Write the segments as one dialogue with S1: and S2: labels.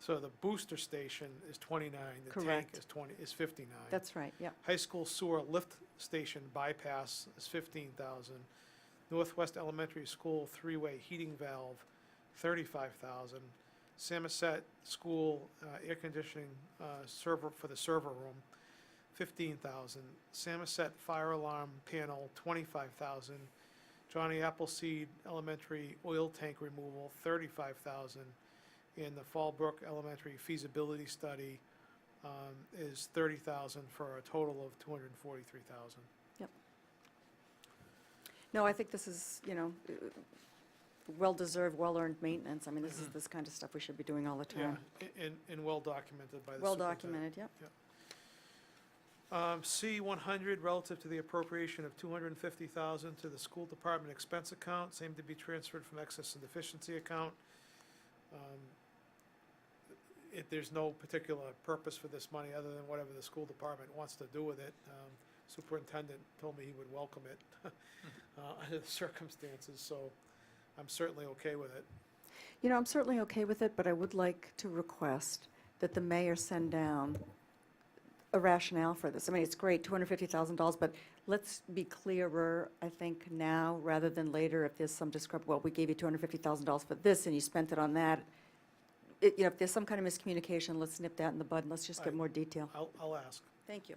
S1: So the booster station is 29, the tank
S2: Correct.
S1: is 20, is 59.
S2: That's right, yeah.
S1: High school sewer lift station bypass is 15,000. Northwest Elementary School three-way heating valve, 35,000. Samoset School uh, air conditioning uh, server, for the server room, 15,000. Samoset fire alarm panel, 25,000. Johnny Appleseed Elementary oil tank removal, 35,000. And the Fallbrook Elementary feasibility study, um, is thirty thousand for a total of two hundred and forty-three thousand.
S2: No, I think this is, you know, uh, well-deserved, well-earned maintenance. I mean, this is this kind of stuff we should be doing all the time.
S1: Um, And, and well documented by the
S2: Well
S1: superintendent.
S2: documented, yep.
S1: Um, C one hundred, relative to the appropriation of two hundred and fifty thousand to the school department expense account, same to be transferred from excess and deficiency account. Um, It, there's no particular purpose for this money, other than whatever the school department wants to do with it. Um, Superintendent told me he would welcome it, uh, under the circumstances, so I'm certainly okay with it.
S2: You know, I'm certainly okay with it, but I would like to request that the mayor send down a rationale for this. I mean, it's great, $250,000, but let's be clearer, I think, now rather than later if there's some discrep, well, we gave you $250,000 for this and you spent it on that. It- You know, if there's some kind of miscommunication, let's nip that in the bud and let's just get
S1: Right.
S2: more detail.
S1: I'll, I'll ask.
S2: Thank you.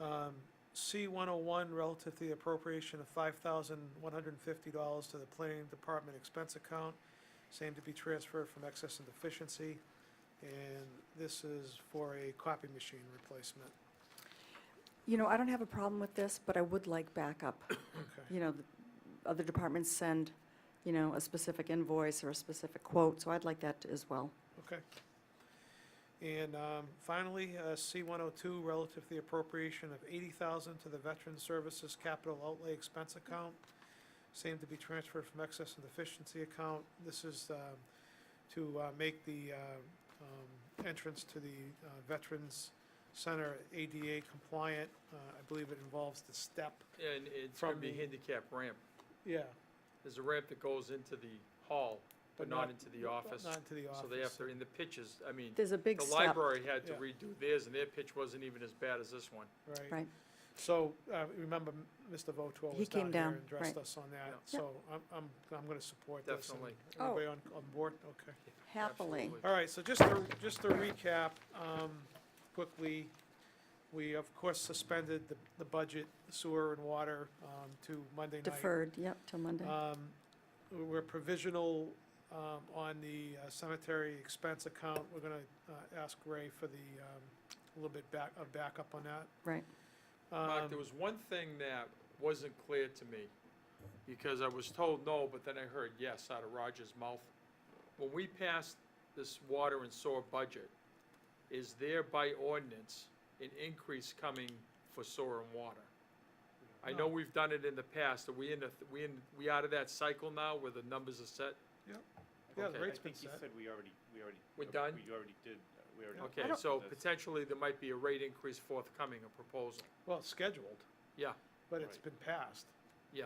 S1: Um, C one oh one, relative to the appropriation of five thousand one hundred and fifty dollars to the planning department expense account, same to be transferred from excess and deficiency. And this is for a copy machine replacement.
S2: You know, I don't have a problem with this, but I would like backup.
S1: Okay.
S2: You know, the other departments send, you know, a specific invoice or a specific quote, so I'd like that as well.
S1: And, um, finally, uh, C one oh two, relative to the appropriation of eighty thousand to the Veteran Services Capital Outlay Expense Account, same to be transferred from excess and deficiency account. This is, um, to, uh, make the, uh, um, entrance to the uh, Veterans Center ADA compliant. Uh, I believe it involves the step.
S3: And it's gonna be
S1: From-
S3: handicap ramp.
S1: Yeah.
S3: There's a ramp that goes into the hall, but not into the office.
S1: Not into the office.
S3: So they have to, in the pitches, I mean,
S2: There's a big
S3: the
S2: step.
S3: library had to
S1: Yeah.
S3: redo theirs, and their pitch wasn't even as bad as this one.
S1: Right.
S2: Right.
S1: So, uh, remember, m- Mr. Voto
S2: He
S1: was down
S2: came
S1: here
S2: down,
S1: and addressed
S2: right.
S1: us on that,
S3: Yeah.
S1: so I'm, I'm, I'm gonna support this. and
S3: Definitely.
S2: Oh.
S1: Everybody on, on board? Okay.
S2: Happily.
S3: Absolutely.
S1: All right, so just to, just to recap, um, quickly, we of course suspended the, the budget sewer and water, um, to Monday night.
S2: Deferred, yep, till Monday.
S3: Uh,
S1: Um, we're provisional, um, on the uh, cemetery expense account. We're gonna, uh, ask Ray for the, um, a little bit back, a backup on that.
S2: Right.
S3: Mark,
S1: Um,
S3: there was one thing that wasn't clear to me, because I was told no, but then I heard yes out of Roger's mouth. When we passed this water and sewer budget, is there by ordinance an increase coming for sewer and water? I know
S1: No.
S3: we've done it in the past, are we in the, we in, we out of that cycle now where the numbers are set?
S1: Yeah,
S3: Okay.
S1: the
S3: I
S1: rate's been
S4: I think you
S1: set.
S4: said we already, we already.
S3: We're done?
S4: We already did, uh, we already.
S3: Okay,
S4: did
S3: so
S4: this.
S3: potentially there might be a rate increase forthcoming, a proposal.
S1: Well, it's scheduled.
S3: Yeah.
S1: But it's
S4: Right.
S1: been passed.
S3: Yeah,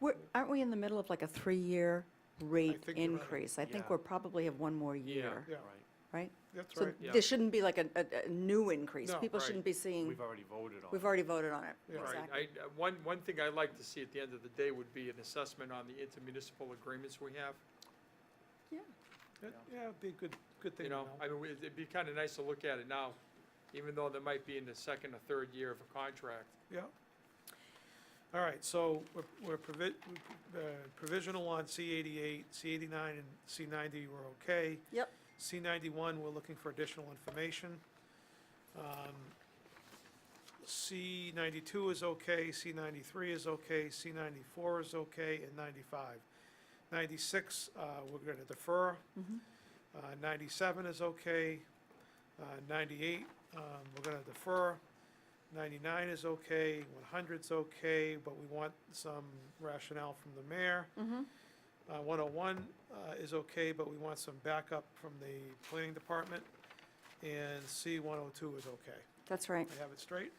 S2: We're- Aren't we in the middle of like a three-year rate
S1: think you're right.
S2: increase? I think
S4: Yeah.
S2: we're probably have one more
S3: Yeah.
S2: year,
S1: Yeah,
S4: Right,
S2: right?
S1: that's
S2: So
S1: right.
S3: Yeah.
S2: there shouldn't be like a, a, a new increase.
S1: No,
S2: People
S3: right.
S2: shouldn't be seeing,
S3: Mm.
S4: we've already voted on it.
S2: we've already voted on it.
S1: Yeah.
S3: right.
S2: Exactly.
S3: I, I- one, one thing I'd like to see at the end of the day would be an assessment on the intermunicipal agreements we have.
S1: That- Yeah, it'd be a good, good thing
S3: You
S1: to
S3: know,
S1: know.
S3: I mean, we- it'd be kind of nice to look at it now, even though they might be in the second or third year of a contract.
S1: Yeah. All right, so we're- we're provi- uh, provisional on C eighty-eight, C eighty-nine, and C ninety were okay.
S2: Yep.
S1: C ninety-one, we're looking for additional information. Um, C ninety-two is okay, C ninety-three is okay, C ninety-four is okay, and ninety-five. Ninety-six, uh, we're gonna defer.
S2: Mhm.
S1: Uh, 97 is okay. Uh, 98, um, we're going to defer. 99 is okay, 100's okay, but we want some rationale from the mayor.
S2: Mhm.
S1: Uh, 101 uh, is okay, but we want some backup from the planning department. And C 102 is okay.
S2: That's right.
S1: I have it straight?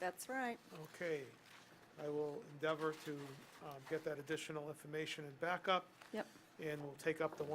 S2: That's right.
S1: Okay, I will endeavor to um, get that additional information and backup.
S2: Yep.
S1: And we'll take up the one.